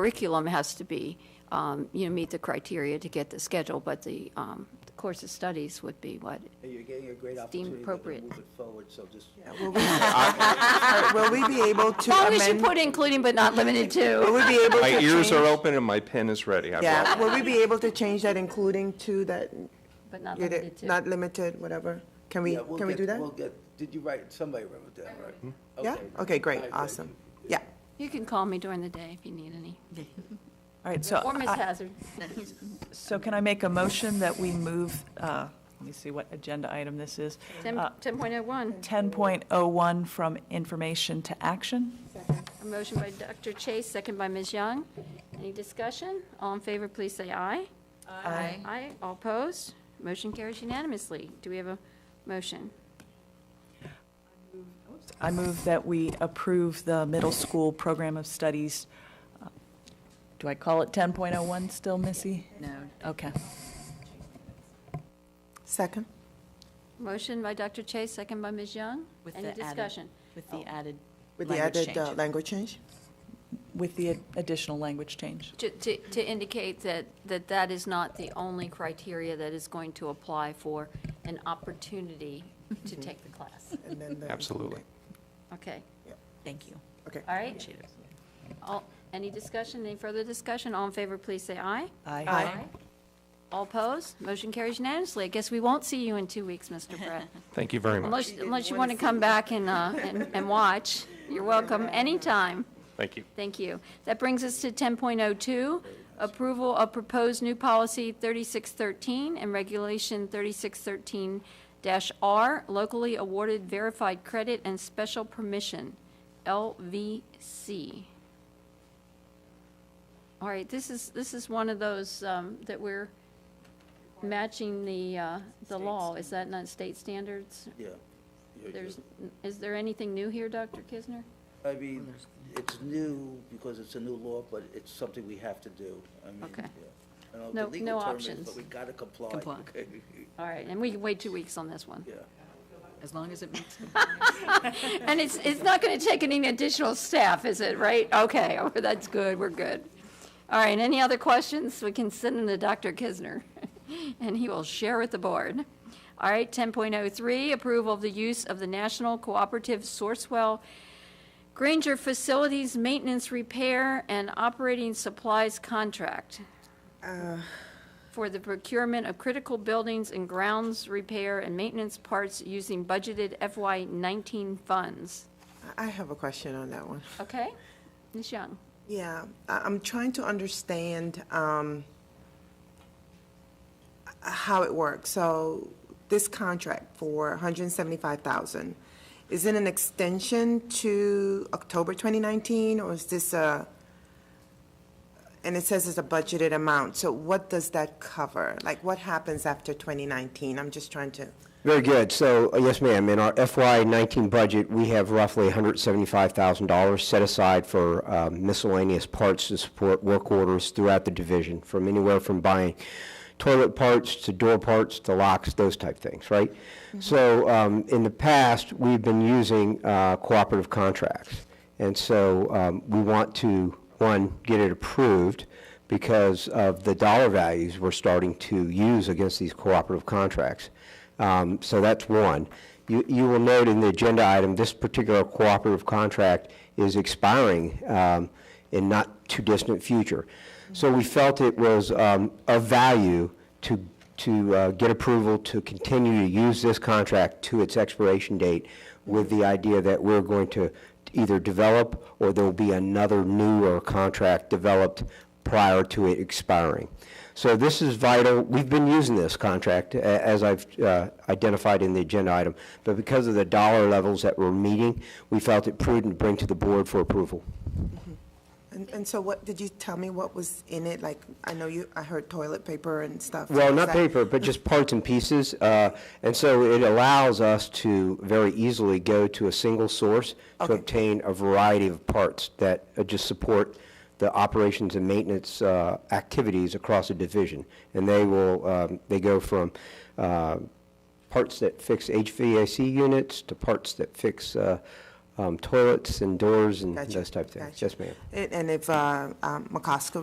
curriculum has to be, um, you know, meet the criteria to get the schedule, but the um, course of studies would be what? And you're getting a great opportunity Deemed to appropriate. move it forward, so just. Will we- uh, Will we be able to As long as you amend? put including but not limited Will to. we be able to My change? ears are open and my pen is ready. I Yeah, brought- will we be able to change that including to that, But not you're the- limited to. not limited, whatever? Can we, Yeah, we'll can we get- do that? We'll get, did you write, somebody wrote that, right? Yeah, okay, All great, right, thank awesome. you. Yeah, You can call me during the day if you need any. All right, so, Or Ms. I- Hazard. so can I make a motion that we move, uh, let me see what agenda item this is. Ten- Uh, 10.01, 10.01 from information to action? a motion by Dr. Chase, second by Ms. Young. Any discussion? All in favor, please say aye. Aye. Aye, all opposed? Motion carries unanimously. Do we have a motion? I move that we approve the middle school program of studies. uh, Do I call it 10.01 still, Missy? No. Okay. second? Motion by Dr. Chase, second by Ms. Young. With Any the added- discussion? With the added With the language added change. uh, language change? With the additional language change. To, to, to indicate that, that that is not the only criteria that is going to apply for an opportunity to take the class. And then the- Absolutely. Okay, Thank you. Okay. all right? Appreciate it. All, any discussion, any further discussion? All in favor, please say aye. Aye. All opposed? Motion carries unanimously. I guess we won't see you in two weeks, Mr. Brett. Thank you very much. Unless, unless you want to come back and, uh, and, and watch. You're welcome anytime. Thank you. Thank you. That brings us to 10.02, approval of proposed new policy 3613 and regulation 3613-R, locally awarded verified credit and special permission, LVC. All right, this is, this is one of those um, that we're matching the, uh, the law. Is that not state standards? Yeah. Yeah, yeah. There's, is there anything new here, Dr. Kisner? I mean, it's new because it's a new law, but it's something we have to do. I mean, Okay. yeah. I don't No- know what the legal no term is, options. But we gotta comply. Comply. okay? All right, and we can wait two weeks on this one. Yeah. As long as it makes, And it's, it's not going to take any additional staff, is it, right? Okay, oh, that's good, we're good. All right, any other questions? We can send them to Dr. Kisner, and he will share with the board. All right, 10.03, approval of the use of the National Cooperative Sourcewell Granger Facilities Maintenance Repair and Operating Supplies Contract for the procurement of critical buildings and grounds repair and maintenance parts using budgeted FY19 funds. I I have a question on that one. Okay? Ms. Young? Yeah, I- I'm trying to understand um, h- how it works. So this contract for $175,000, is it an extension to October 2019, or is this a, and it says it's a budgeted amount, so what does that cover? Like, what happens after 2019? I'm just trying to, Very good. So, uh, yes, ma'am, in our FY19 budget, we have roughly $175,000 set aside for um, miscellaneous parts to support work orders throughout the division, from anywhere from buying toilet parts to door parts to locks, those type things, right? So, um, in the past, we've been using uh, cooperative contracts. And so um, we want to, one, get it approved because of the dollar values we're starting to use against these cooperative contracts. Um, So that's one. You, you will note in the agenda item, this particular cooperative contract is expiring um, in not too distant future. So we felt it was um, of value to, to uh, get approval to continue to use this contract to its expiration date with the idea that we're going to either develop or there'll be another newer contract developed prior to it expiring. So this is vital. We've been using this contract, a- as I've uh, identified in the agenda item, but because of the dollar levels that we're meeting, we felt it prudent to bring to the board for approval. and and so what, did you tell me what was in it? Like, I know you, I heard toilet paper and stuff. so Well, is not that- paper, but just parts and pieces. uh, And so it allows us to very easily go to a single source to Okay. obtain a variety of parts that uh, just support the operations and maintenance uh, activities across a division. And they will, um, they go from uh, parts that fix HVAC units to parts that fix uh, uh, um, toilets and doors and Gotcha, those type of things. gotcha. Yes, ma'am. And and if uh, um, McCosker